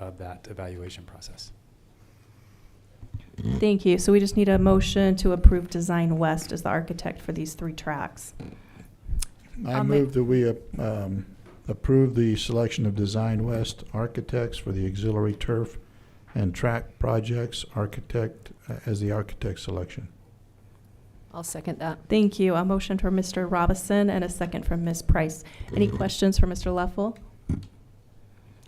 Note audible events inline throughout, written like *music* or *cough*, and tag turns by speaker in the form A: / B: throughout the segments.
A: of that evaluation process.
B: Thank you. So we just need a motion to approve Design West as the architect for these three tracks.
C: I
D: I'll ma-
C: move that we um, approve the selection of Design West Architects for the auxiliary turf and track projects architect, uh, as the architect selection.
D: I'll second that.
B: Thank you. A motion from Mr. Robison and a second from Ms. Price. Any questions for Mr. Leffel?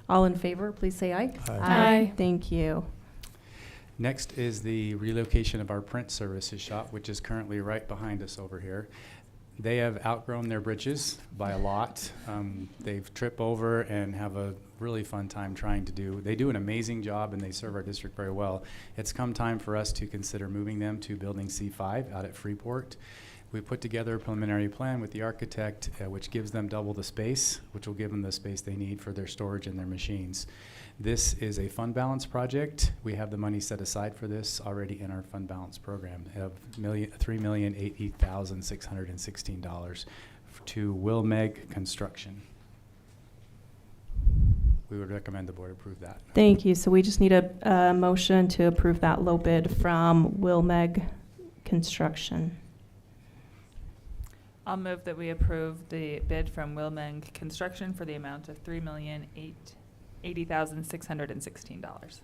B: All in favor, please say aye.
D: Aye.
B: Thank you.
A: Next is the relocation of our print services shop, which is currently right behind us over here. They have outgrown their britches by a lot. Um, they've trip over and have a really fun time trying to do. They do an amazing job and they serve our district very well. It's come time for us to consider moving them to Building C5 out at Freeport. We put together a preliminary plan with the architect, uh, which gives them double the space, which will give them the space they need for their storage and their machines. This is a fund balance project. We have the money set aside for this already in our fund balance program of million, three million eighty thousand six hundred and sixteen dollars to Wilmeg Construction. We would recommend the board approve that.
B: Thank you. So we just need a, a motion to approve that low bid from Wilmeg Construction.
E: I'll move that we approve the bid from Wilming Construction for the amount of three million eight, eighty thousand six hundred and sixteen dollars.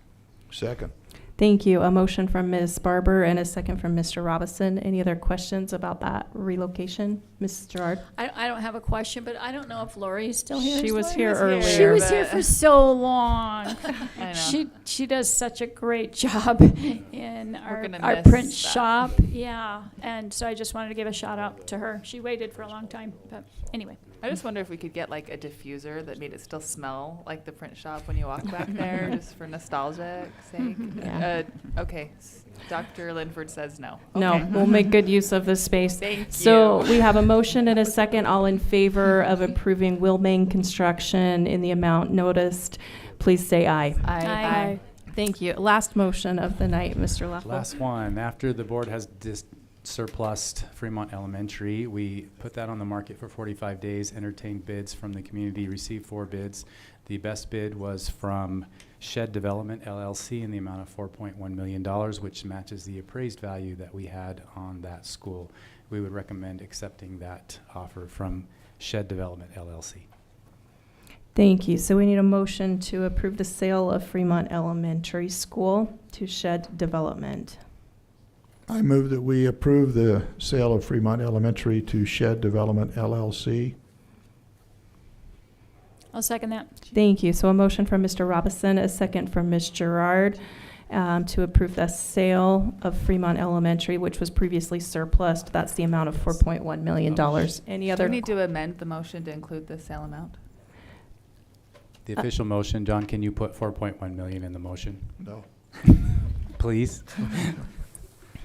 C: Second.
B: Thank you. A motion from Ms. Barber and a second from Mr. Robison. Any other questions about that relocation? Ms. Gerard?
F: I, I don't have a question, but I don't know if Lori is still here.
B: She
F: Is
B: was
F: Lori-
B: here earlier.
F: She was
E: but-
F: here for so long. *laughs*
E: I know.
F: She, she does such a great job in our,
E: gonna
F: our
E: miss
F: print
E: that.
F: shop. Yeah, and so I just wanted to give a shout out to her. She waited for a long time, but anyway.
E: I just wonder if we could get like a diffuser that made it still smell like the print shop when you walk
B: *laughs*
E: back there, just for nostalgic sake.
B: Yeah.
E: Uh, okay, s- Dr. Linford says no. Okay.
B: No, we'll make good use of this space.
E: Thank
B: So
E: you.
B: we have a motion and a second. All in favor of approving Wilming Construction in the amount noticed, please say aye.
F: Aye.
B: Thank you. Last motion of the night, Mr. Leffel.
A: Last one, after the board has dis- surplused Fremont Elementary, we put that on the market for forty-five days, entertained bids from the community, received four bids. The best bid was from Shed Development LLC in the amount of four point one million dollars, which matches the appraised value that we had on that school. We would recommend accepting that offer from Shed Development LLC.
B: Thank you. So we need a motion to approve the sale of Fremont Elementary School to Shed Development.
C: I move that we approve the sale of Fremont Elementary to Shed Development LLC.
F: I'll second that.
B: Thank you. So a motion from Mr. Robison, a second from Ms. Gerard um, to approve the sale of Fremont Elementary, which was previously surplused. That's the amount of $4.1 million. Any
E: Do we
B: other?
E: need to amend the motion to include the sale amount?
A: The
B: Uh,
A: official motion, John, can you put four point one million in the motion, *laughs*
C: No.
A: please?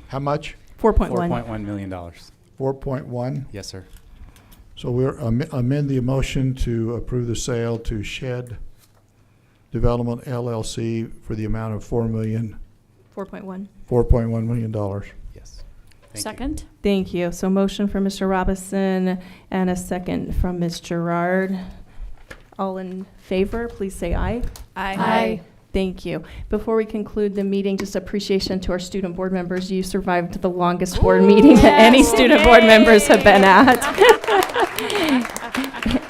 C: How much?
A: Four
B: 4.1.
A: point one million dollars.
C: Four point one?
A: Yes, sir.
C: So we're am- amend the motion to approve the sale to Shed Development LLC for the amount of four million,
B: 4.1.
C: four point one million dollars.
A: Yes. Thank you.
F: Second?
B: Thank you. So motion from Mr. Robison and a second from Ms. Gerard. All in favor, please say aye. Thank you. Before we conclude the meeting, just appreciation to our student board members. You survived the longest board meeting that any
F: yes.
B: student board members have been *laughs* at.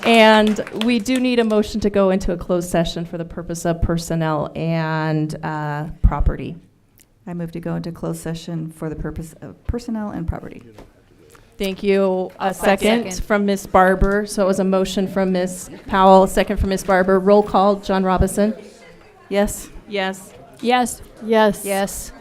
B: And we do need a motion to go into a closed session for the purpose of personnel and uh, property.
G: I move to go into closed session for the purpose of personnel and property.
B: Thank you. A second
F: second.
B: from Ms. Barber. So it was a motion from Ms. Powell, a second from Ms. Barber. Roll call, John Robison? Yes? Yes.
F: Yes. Yes. Yes.